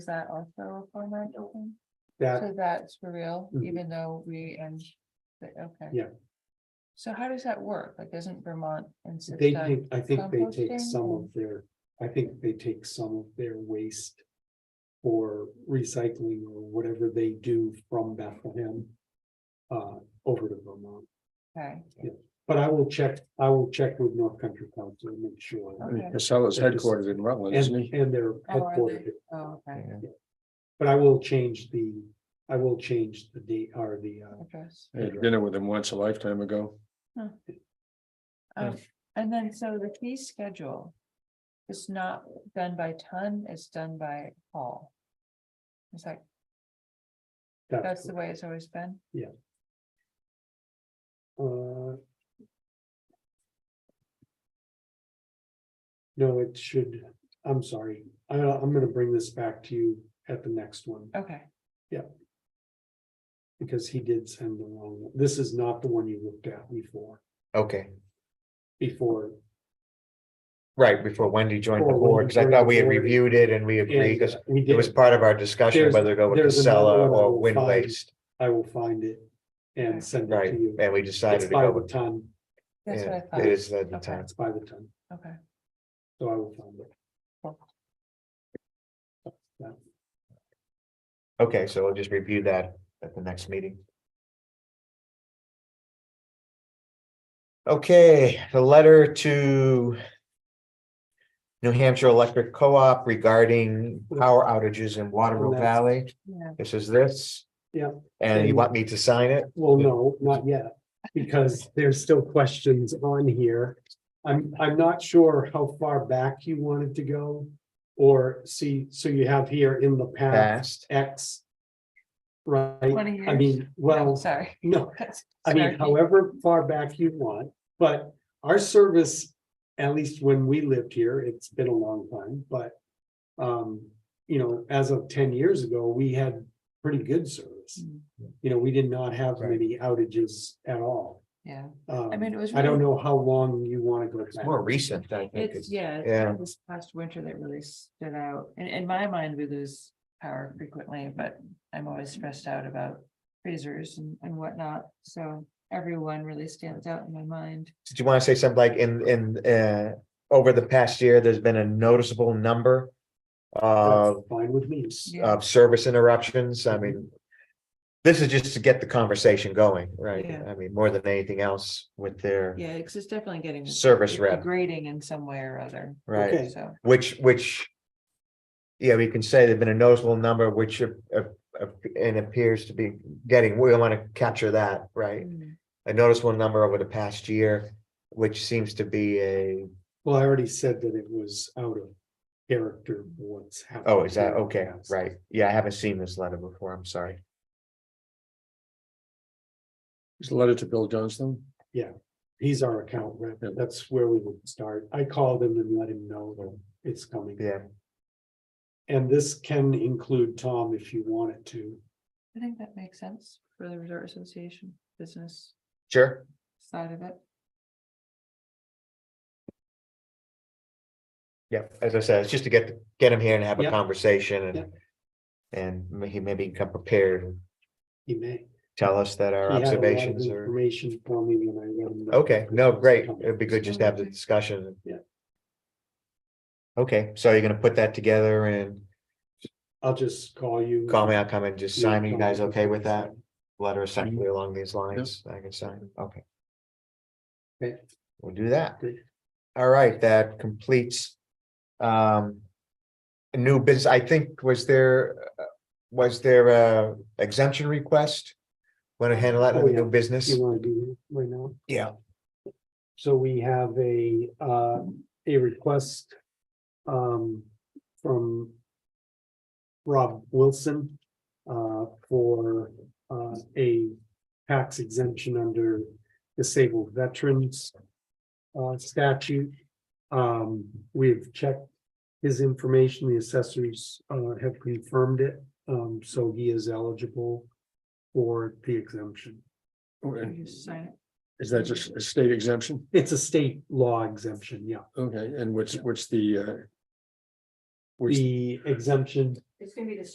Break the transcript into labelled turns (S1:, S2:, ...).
S1: Is that also a format open?
S2: That,
S1: So that's for real,
S2: Mhm.
S1: even though we and, but, okay.
S2: Yeah.
S1: So how does that work? Like, doesn't Vermont insist
S2: they
S1: on?
S2: take, I think they
S1: composting
S2: take some
S1: or-
S2: of their, I think they take some of their waste. For recycling or whatever they do from Bethlehem. Uh, over to Vermont,
S1: Okay,
S2: but I will check, I will check with North Country Council and make sure.
S1: Okay.
S3: Casella's
S2: They're just-
S3: headquartered in Rutland,
S2: And,
S3: isn't he?
S2: and they're
S1: Oh, are
S2: headquartered,
S1: oh, okay,
S3: Yeah.
S2: but I will change the, I will change the date or the, uh,
S1: address.
S3: I had dinner with him once a lifetime ago.
S2: uh,
S1: Um, and then so the fee schedule. is not done by ton, it's done by haul. It's like, that's
S2: that's,
S1: the way it's always been.
S2: uh. No, it should, I'm sorry, I, I'm gonna bring this back to you at the next one,
S1: Okay,
S2: because he did send the wrong, one. this is not the one you looked at before,
S4: Okay,
S2: before.
S4: right, before Wendy joined the
S2: Before Wendy
S4: board, because I
S2: joined
S4: thought
S2: the
S4: we had
S2: board.
S4: reviewed it and we agreed, because
S2: and we
S4: it was
S2: did-
S4: part of our discussion
S2: There's-
S4: whether to go with
S2: there's another
S4: Casella
S2: one I
S4: or
S2: will
S4: wind
S2: find.
S4: waste,
S2: I will find it and send it
S4: right,
S2: to you.
S4: and we
S2: It's
S4: decided to
S2: by
S4: go
S2: the
S4: with.
S2: ton,
S1: that's what I
S4: yeah,
S1: thought.
S4: It is at the
S1: Okay.
S4: time,
S2: it's by the ton,
S1: Okay,
S2: so I will find it.
S4: okay, so we'll just review that at the next meeting. Okay, the letter to. New Hampshire Electric Co-op regarding power outages in Waterloo
S2: that's-
S4: Valley,
S1: yeah,
S4: this is this.
S2: Yeah.
S4: And you want me to sign it?
S2: Well, no, not yet, because there's still questions on here. I'm, I'm not sure how far back you wanted to go. Or see, so you have here in the past
S4: Passed.
S2: X. Right,
S1: twenty years.
S2: I mean,
S1: No,
S2: well,
S1: Sorry.
S2: no,
S1: That's-
S2: I mean,
S1: sorry.
S2: however far back you want, but our service, at least when we lived here, it's been a long time, but. Um, you know, as of ten years ago, we had pretty good service.
S1: Mm,
S2: You know, we did not have many outages at all.
S1: Yeah, I mean,
S2: Um,
S1: it was.
S2: I don't
S1: really-
S2: know how long you wanna go
S4: It's more
S2: back.
S4: recent, I think.
S1: It's, yeah, it's
S4: Yeah.
S1: this past winter that really stood out. In, in my mind, we lose power frequently, but I'm always stressed out about freezers and, and whatnot. So everyone really stands out in my mind.
S4: Did you want to say something like in, in, uh, over the past year, there's been a noticeable number
S2: That's
S4: of,
S2: Fine with me.
S1: Yeah.
S4: of service interruptions? I mean, this is just to get the conversation going, right?
S1: Yeah.
S4: I mean, more than anything else with their
S1: Yeah, because it's definitely getting
S4: service rep,
S1: degrading in some way or other.
S4: right?
S2: Okay.
S1: So,
S4: Which, which, yeah, we can say there've been a noticeable number, which, uh, uh, uh, and appears to be getting, we want to capture that, right?
S1: mm,
S4: A noticeable number over the past year, which seems to be a
S2: Well, I already said that it was out of character for what's happened.
S4: Oh, is that,
S2: here in the
S4: okay,
S2: past.
S4: right, yeah, I haven't seen this letter before, I'm sorry.
S3: It's a letter to Bill Johnston.
S2: He's our account rep.
S3: Yeah.
S2: That's where we would start. I called him and let him know that it's coming.
S4: Yeah,
S2: And this can include Tom if you want it to.
S1: I think that makes sense for the Resort Association business
S4: sure,
S1: side of it.
S4: yeah, as I said, it's just to get, get him here and have a
S2: Yeah.
S4: conversation and.
S2: Yeah.
S4: And ma- he maybe can come prepared, and
S2: He may.
S4: tell us that our
S2: He had a lot of
S4: observations are,
S2: Information for me when I let him. know
S4: okay,
S2: that
S4: no,
S2: this was
S4: great,
S2: coming.
S4: it'd be good just to have the discussion.
S2: Yeah.
S4: Okay, so you're gonna put that together and
S2: I'll just call you.
S4: call me, I'll come and just sign, you
S2: Tom,
S4: guys
S2: if
S4: okay with
S2: can
S4: that?
S2: sign.
S4: Letter
S2: Mm-hmm.
S4: essentially along these lines, I can sign, okay.
S2: Okay.
S4: We'll do that.
S2: Great.
S4: All right, that completes. Um. a New business, I think, was there, uh, was there a exemption request? Want to handle that
S2: Oh,
S4: in the
S2: yeah.
S4: new business?
S2: You wanna do that right now?
S4: Yeah.
S2: So we have a, uh, a request, um, from Rob Wilson, uh, for, uh, a tax exemption under disabled veterans uh, statute. Um, we've checked his information, the assessors, uh, have confirmed it, um, so he is eligible for the exemption.
S1: You
S3: Okay.
S1: just sign it.
S3: Is that just a state exemption?
S2: It's a state law exemption, yeah.
S3: Okay, and what's, what's the, uh, what's
S2: The exemption
S1: It's gonna be the